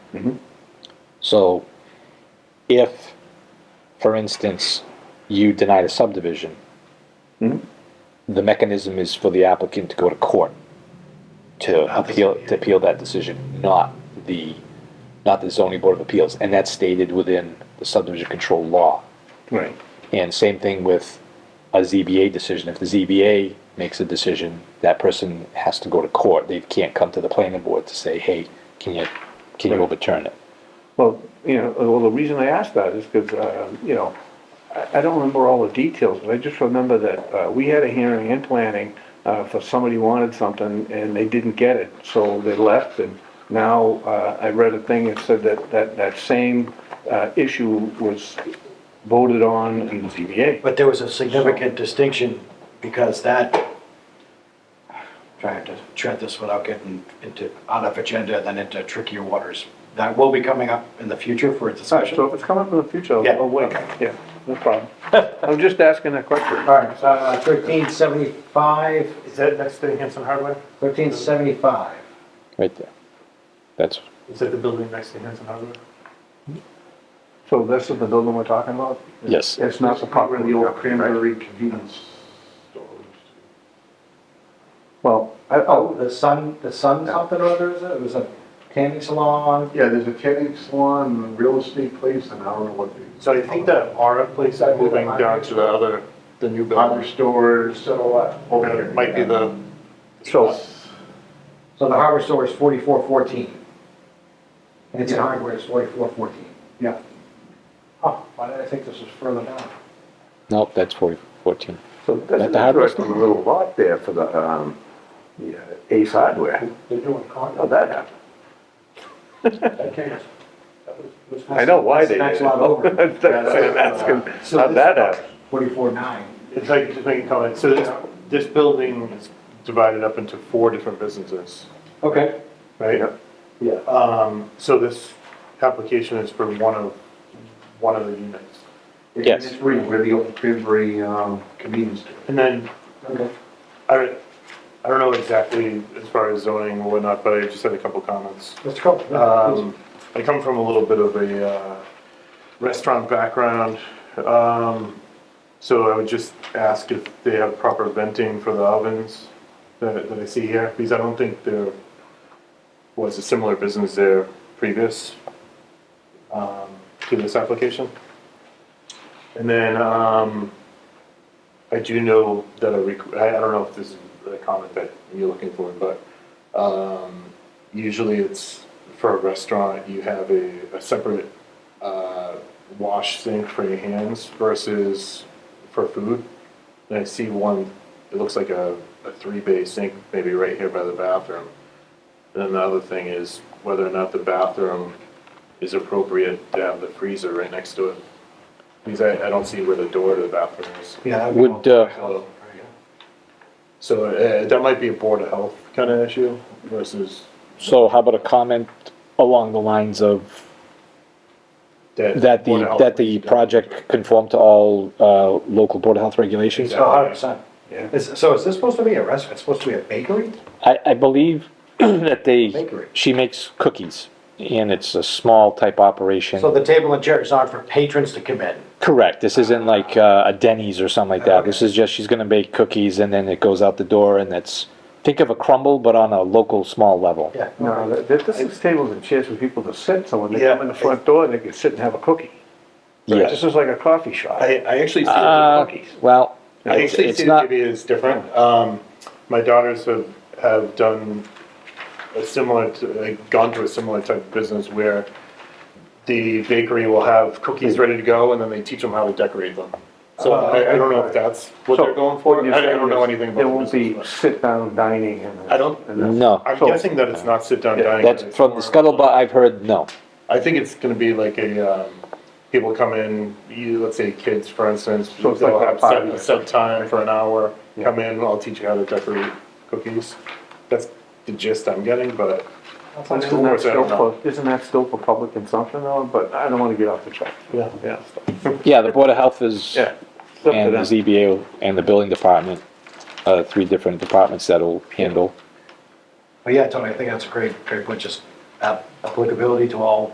So if, for instance, you denied a subdivision, the mechanism is for the applicant to go to court to appeal, to appeal that decision, not the, not the zoning board of appeals. And that's stated within the subdivision control law. Right. And same thing with a ZBA decision. If the ZBA makes a decision, that person has to go to court. They can't come to the planning board to say, hey, can you, can you Right. overturn it? Well, you know, well, the reason I asked that is because, you know, I, I don't remember all the details, but I just remember that, uh, we had a hearing in planning, uh, for somebody wanted something and they didn't get it, so they left and now, uh, I read a thing that said that, that, that same, uh, issue was voted on in the ZBA. But there was a significant distinction because that, trying to tread this without getting into, out of agenda and then into trickier waters. That will be coming up in the future for a So discussion. if it's coming up in the future, Yeah. I'll wait, yeah, no problem. I'm just asking a question. All right, uh, thirteen seventy-five, Is that next to Hanson Hardware? thirteen seventy-five. Right there. That's, Is that the building next to Hanson Hardware? So this is the building we're talking about? yes. It's not the property. The old cranberry convenience store. Well, I, Oh, I'll, the sun, the sun something or other, is it? It was a tanning salon. Yeah, there's a tanning salon, a real estate place, and I don't know what the. So I think that Aura place is moving down to the other, the new Hardware building. stores So, uh, over here. Might be the, so, so the hardware store is forty-four fourteen. And it's hardware is forty-four fourteen. Yeah. Oh, why did I think this was further down? Nope, that's 40, 14. so that's At an the hardware interesting little lot there for the, um, the, uh, Ace Hardware. They're doing How'd condos. that happen? I That's a lot over. That's uh, what I'm asking. So How'd this- that happen? Forty-four nine. if I could just make a comment, so this, this building is divided up into four different businesses, Okay. right? Yeah. Um, so this application is for one of, one of the units. Yes. It's right where the old cranberry, um, convenience store. And then Okay. I, I don't know exactly as far as zoning or whatnot, but I just had a couple comments. Let's go. Um, I come from a little bit of a uh, restaurant background, um, so I would just ask if they have proper venting for the ovens that, that I see here, because I don't think there was a similar business there previous um, to this application. And then um, I do know that a requ- I, I don't know if this is the comment that you're looking for, but um, usually it's for a restaurant, you have a, a separate uh, wash sink for your hands versus for food. And I see one, it looks like a, a three bay sink, maybe right here by the bathroom. And then the other thing is whether or not the bathroom is appropriate to have the freezer right next to it. Because I, I don't see where the door to the bathroom is. Yeah. Would, uh, So- So uh, that might be a Board of Health kind of issue versus So how about a comment along the lines of that. that Board of the, Health that the might be- project conform to all, uh, local board of health regulations? Exactly. hundred percent. Yeah. Is, so is this supposed to be a restaurant? It's supposed to be a bakery? I, I believe that they, Bakery. she makes cookies and it's a small type operation. So the table and chairs aren't for patrons to come in? Correct. This isn't like uh, a Denny's or something like that. This is just, she's gonna bake cookies and then it goes out the door and that's, think of a crumble, but on a local, small level. Yeah. No, that- that, this is tables and chairs for people to sit, so when they Yeah. come in the front door, they can sit and have a cookie. Yeah. This is like a coffee shop. I, I actually see, Uh, it- well, I it's actually it's see not. it maybe as different. Um, my daughters have, have done a similar, t- like, gone to a similar type of business where the bakery will have cookies ready to go and then they teach them how to decorate them. So I, I don't know if that's what Uh, So they're going for. what you're I, I saying don't know is anything about There the won't business, be but- sit-down dining in this. I don't- in this. No. I'm So- guessing that it's not sit down Yeah, dining. That's it's from the more- scuttlebutt I've heard, no. I think it's going to be like a um, people come in. You, let's say kids, for instance, So it's they'll like a have set, party. a set time for an hour. Come in, I'll teach you how to decorate cookies. That's the gist I'm getting, but Isn't cool. that still I don't know. for, isn't that still for public consumption though? But I don't wanna get off the track. yeah. Yeah. Yeah, the Board of Health is, Yeah. and It's up to the them. ZBA and the building department, uh, three different departments that'll handle. But yeah, Tony, I think that's a great, great point, just ap- applicability to all